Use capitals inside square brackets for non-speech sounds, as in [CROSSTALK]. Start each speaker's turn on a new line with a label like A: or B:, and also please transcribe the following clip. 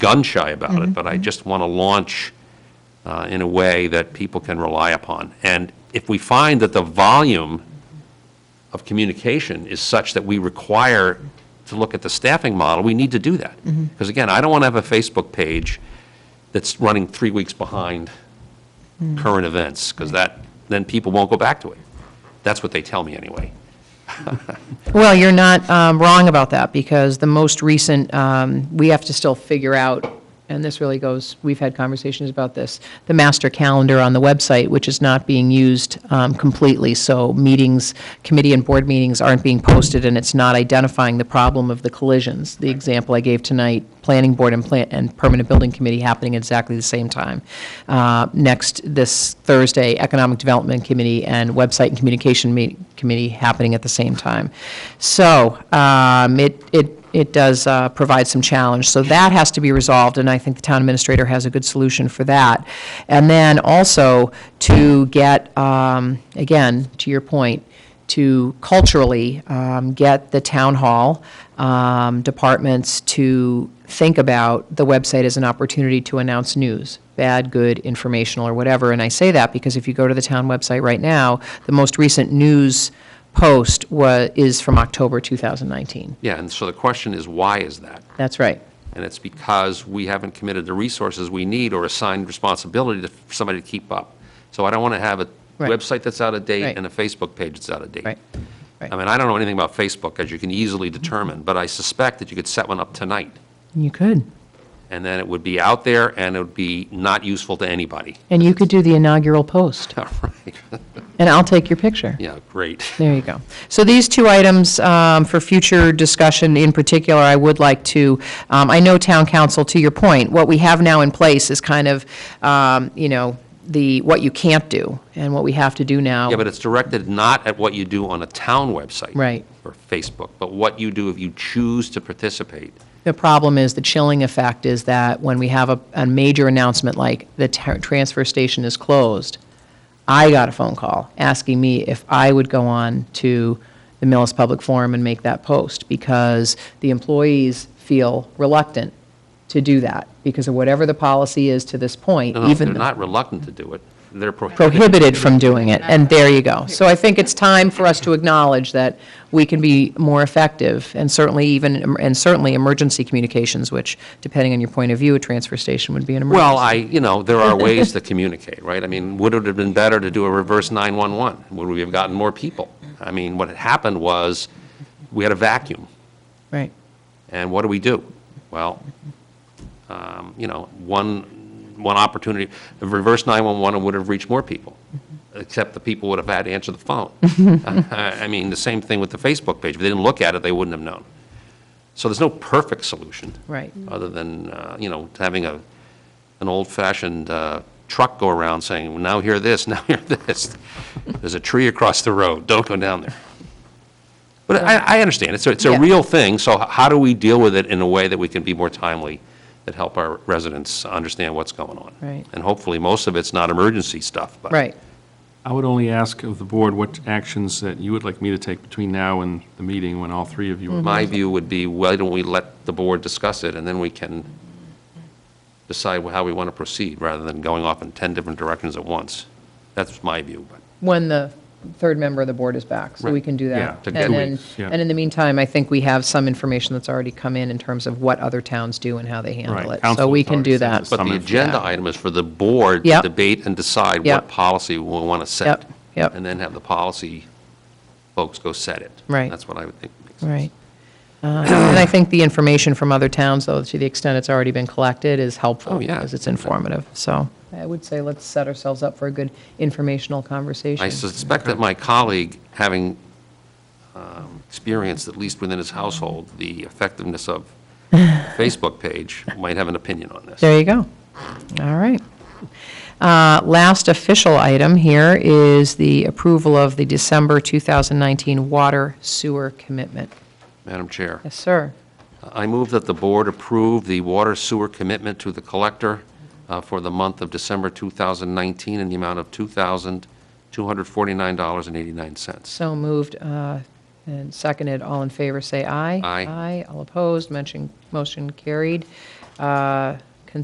A: gun shy about it, but I just want to launch uh, in a way that people can rely upon. And if we find that the volume of communication is such that we require to look at the staffing model, we need to do that. Because again, I don't want to have a Facebook page that's running three weeks behind current events, because that, then people won't go back to it. That's what they tell me, anyway.
B: Well, you're not um, wrong about that, because the most recent, um, we have to still figure out, and this really goes, we've had conversations about this, the master calendar on the website, which is not being used um, completely, so meetings, committee and board meetings aren't being posted, and it's not identifying the problem of the collisions. The example I gave tonight, planning board and plan, and permanent building committee happening at exactly the same time. Uh, Next, this Thursday, economic development committee and website and communication meet, committee happening at the same time. So, um, it, it, it does, uh, provide some challenge. So that has to be resolved, and I think the town administrator has a good solution for that. And then also to get, um, again, to your point, to culturally um, get the town hall um, departments to think about the website as an opportunity to announce news, bad, good, informational, or whatever. And I say that because if you go to the town website right now, the most recent news post wa- is from October 2019.
A: Yeah, and so the question is, why is that?
B: That's right.
A: And it's because we haven't committed the resources we need or assigned responsibility to for somebody to keep up. So I don't want to have a
B: Right.
A: website that's out of date
B: Right.
A: and a Facebook page that's out of date.
B: Right. Right.
A: I mean, I don't know anything about Facebook, as you can easily determine, but I suspect that you could set one up tonight,
B: You could.
A: and then it would be out there, and it would be not useful to anybody.
B: And you could do the inaugural post,
A: [LAUGHS] All right,
B: and I'll take your picture.
A: yeah, great.
B: There you go. So these two items um, for future discussion in particular, I would like to, um, I know town council, to your point, what we have now in place is kind of, um, you know, the, what you can't do and what we have to do now.
A: Yeah, but it's directed not at what you do on a town website.
B: Right.
A: Or Facebook, but what you do if you choose to participate.
B: The problem is, the chilling effect is that when we have a, a major announcement like the ta- transfer station is closed, I got a phone call asking me if I would go on to the Millis Public Forum and make that post because the employees feel reluctant to do that because of whatever the policy is to this point,
A: No, no,
B: even
A: they're
B: the-
A: not reluctant to do it, they're prohibited.
B: prohibited from doing it, and there you go. So I think it's time for us to acknowledge that we can be more effective, and certainly even, and certainly emergency communications, which, depending on your point of view, a transfer station would be an emergency.
A: Well, I, you know, there are ways to communicate, right? I mean, would it have been better to do a reverse 911? Would we have gotten more people? I mean, what had happened was, we had a vacuum,
B: Right,
A: and what do we do? Well, um, you know, one, one opportunity, a reverse 911 would have reached more people, except the people would have had to answer the phone. [LAUGHS] I mean, the same thing with the Facebook page. If they didn't look at it, they wouldn't have known. So there's no perfect solution
B: right.
A: other than, uh, you know, having a, an old-fashioned uh, truck go around saying, now hear this, [LAUGHS] now hear this. There's a tree across the road, don't go down there. But I, I understand, it's, a- it's a
B: Yeah.
A: real thing, so h- how do we deal with it in a way that we can be more timely, that help our residents understand what's going on?
B: Right.
A: And hopefully, most of it's not emergency stuff, but.
B: Right.
C: I would only ask of the board what actions that you would like me to take between now and the meeting when all three of you are.
B: Mm-hmm.
A: My view would be, why don't we let the board discuss it, and then we can decide how we want to proceed, rather than going off in 10 different directions at once. That's my view, but
B: When the third member of the board is back, so we
A: Right.
B: can do
C: Yeah,
B: that.
A: to
B: And
A: get- Two
B: then,
C: weeks, yeah.
B: and in the meantime, I think we have some information that's already come in, in terms of what other towns do and how they handle
C: Right,
B: it. So
C: council
B: we
C: has
B: can
C: already
B: do
C: sent
B: that.
C: us
A: But
C: Some
A: the
C: of-
A: agenda
C: Yeah.
A: item is for the board to
B: Yep.
A: debate and decide
B: Yep.
A: what policy we want to set.
B: Yep, yep.
A: And then have the policy folks go set it.
B: Right.
A: That's what I would think makes sense.
B: Right. Uh, And I think the information from other towns, though, to the extent it's already been collected, is helpful.
A: Oh, yeah.
B: Because it's informative. So I would say let's set ourselves up for a good informational conversation.
A: I suspect that my colleague, having um, experienced, at least within his household, the effectiveness
B: [LAUGHS]
A: of Facebook page, might have an opinion on this.
B: There you go. All right. Uh, Last official item here is the approval of the December 2019 water sewer commitment.
A: Madam Chair.
B: Yes, sir.
A: I move that the board approve the water sewer commitment to the collector uh, for the month of December 2019 in the amount of $2,249.89.
B: So moved uh, and seconded. All in favor, say aye.
A: Aye.
B: Aye. All opposed, mention, motion carried. Uh, uh,